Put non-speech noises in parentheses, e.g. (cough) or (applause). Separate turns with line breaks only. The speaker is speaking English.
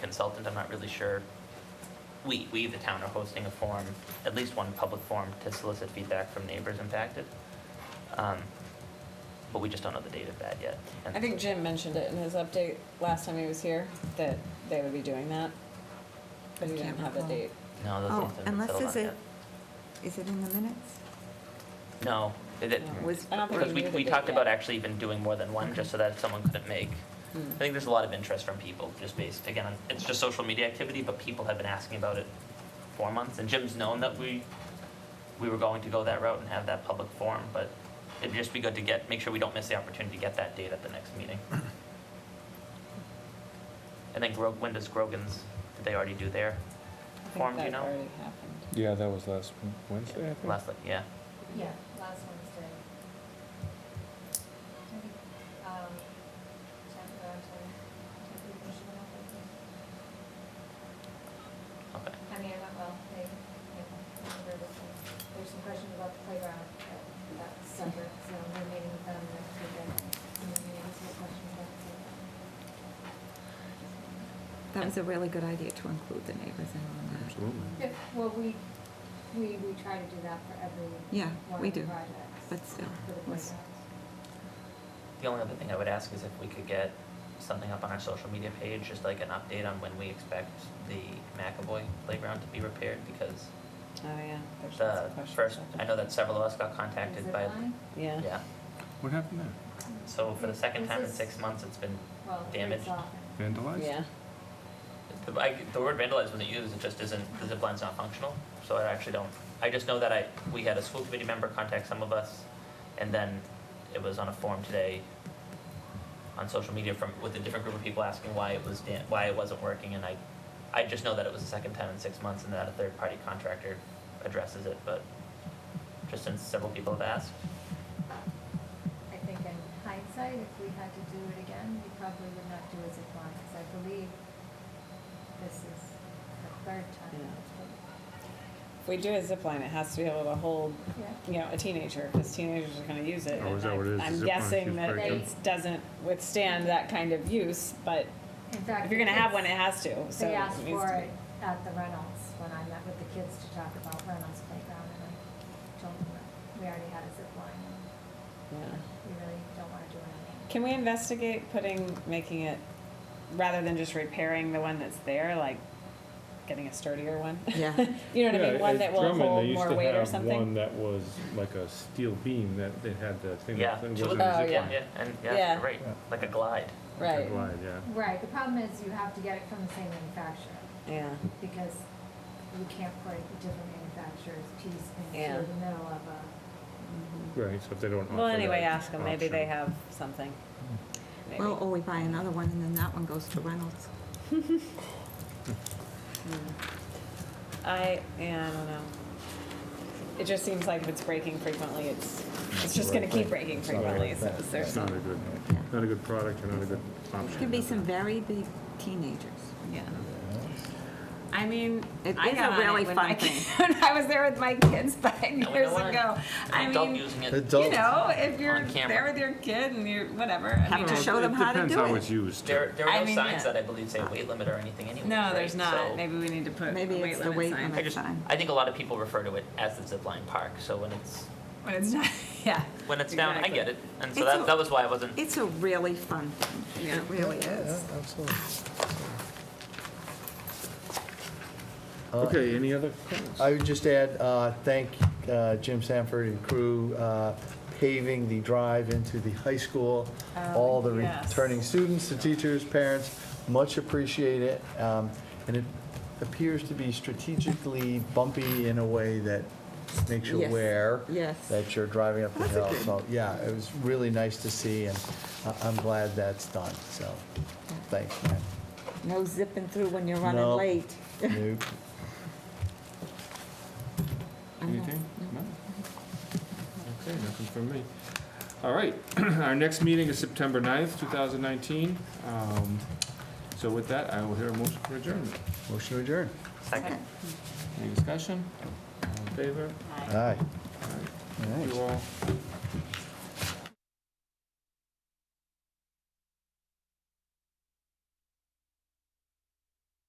consultant, I'm not really sure. We, we, the town, are hosting a forum, at least one public forum, to solicit feedback from neighbors impacted. Um, But we just don't know the date of that yet. And
I think Jim mentioned it in his update last time he was here, that they would be doing that. But he
I
didn't
can't
have a
recall.
date.
No, those
Oh,
things haven't been
unless
settled
it's
on
a-
yet.
Is it in the minutes?
No, it, it-
No.
Was-
I don't think
because
he
we,
knew the
we
date
talked about
yet.
actually even doing more than one, just so that someone couldn't make.
Hmm.
I think there's a lot of interest from people, just based, again, on- it's just social media activity, but people have been asking about it for months, and Jim's known that we, we were going to go that route and have that public forum, but it'd just be good to get, make sure we don't miss the opportunity to get that date at the next
(clears throat)
meeting. And then Grog, when does Grogan's, did they already do their
I think
forum, do you
that
know?
already happened.
Yeah, that was last Wednesday, I think.
Last, yeah,
Yeah, last Wednesday. Um, chapter, I'm sorry, chapter commission, I think.
okay.
I mean, I'm not well, they, you know, they were just, there's some questions about the playground, but that's separate, so we're meeting with them next week, and we're meeting with some questions about the playground.
That was a really good idea to include the neighbors in on that.
Absolutely.
Yeah, well, we, we, we try to do that for every
Yeah,
one of
we
the
do.
projects,
But still,
For the
it was-
playgrounds.
The only other thing I would ask is if we could get something up on our social media page, just like an update on when we expect the McAvoy playground to be repaired, because
Oh, yeah. There's lots
the
of questions.
first,
out
I
there.
know that several of us got contacted
Zip
by,
line?
Yeah.
yeah.
What happened there?
So for the second
Is
time in
this-
six months, it's been,
Well, it's
Damaged.
off.
Vandalized?
Yeah.
the- I, the word vandalized wasn't used, it just isn't, the zip line's not functional, so I actually don't, I just know that I, we had a school committee member contact some of us, and then it was on a forum today on social media from, with a different group of people asking why it was, dan- why it wasn't working, and I, I just know that it was the second time in six months and that a third-party contractor addresses it, but just since several people have asked,
I think in hindsight, if we had to do it again, we probably would not do as a line, because I believe this is the third time.
Yeah. If we do a zip line, it has to be able to hold,
Yeah.
you know, a teenager, because teenagers are gonna use it.
Oh, is
and
that what it is?
I-
Zip
I'm
line
guessing
keeps
that
breaking.
it doesn't withstand that kind of use, but
In fact.
if you're gonna have one, it
it's-
has to, so.
They
it
asked
needs
for
to be-
it at the Reynolds, when I met with the kids to talk about Reynolds Playground, and I told them that we already had a zip line, and
Yeah.
we really don't want to do anything.
Can we investigate putting, making it, rather than just repairing the one that's there, like getting a sturdier one? (laughs)
Yeah.
You know what I
Yeah,
mean, one
at
that will
Drummond, they
hold
used
more
to
weight or
have One
something?
that was like a steel beam that they had the thing
yeah.
that that was
two
a
of
zip
them,
Oh,
line.
yeah, yeah, and, yeah,
Yeah.
you're right,
Yeah.
like a glide.
Right,
Glide, yeah.
Right, the problem is you have to get it from the same manufacturer.
yeah,
because you can't put a different manufacturer's piece
Yeah.
into the middle of a,
Right, so if they don't offer that.
well, anyway, ask them, maybe they
option.
have something, maybe.
Well, or we buy another one and then that one goes to Reynolds.
I, yeah, I don't know. It just seems like if it's breaking frequently, it's, it's just gonna keep breaking
It's not a
frequently,
good
so
thing.
is there
It's not a
some,
good,
Yeah.
not a good product and not a good option.
Could be some very big teenagers.
yeah. I mean,
It
I
is
got
a
on
really
it (laughs) when
fun
my
thing.
kid- I was there with my kids five
know
years
why.
ago. I
Adult
mean,
using it.
you know, if you're
on camera.
there with your kid and you're whatever. I
Have
mean,
to
Well,
show them how to
It
do
depends how
it.
it's used.
There, there
I
are no
mean,
signs
yeah.
that I believe say weight limit or anything anyway.
no, there's not. Maybe we need to put
Maybe
a weight
it's the
limit
weight
sign.
I
limit.
just,
Fine.
I think a lot of people refer to it as the zipline park, so when it's,
When it's (laughs) not, yeah.
when it's down, I
Exactly.
get it. And so
It's
that,
a-
that was why I wasn't,
It's a really fun thing.
Yeah.
It really is.
absolutely.
Okay, any other comments?
I would just add, uh, thank uh, Jim Sanford and crew uh, paving the drive into the high school.
Oh,
All the
yes.
returning students, the teachers, parents, much appreciate it. Um, And it appears to be strategically bumpy in a way that makes you
Yes,
aware
yes.
that you're driving up the hill. So, yeah, it was really nice to see, and I- I'm glad that's done, so, thanks, man.
No zipping through when you're running
No.
late. (laughs)
Nope.
Anything? No? Okay, nothing from me. All right, (clears throat) our next meeting is September 9th, 2019. Um, So with that, I will hear a motion for adjournment.
Motion to adjourn.
second,
Any discussion? All in favor?
Aye.
All right,
All right.
thank you all.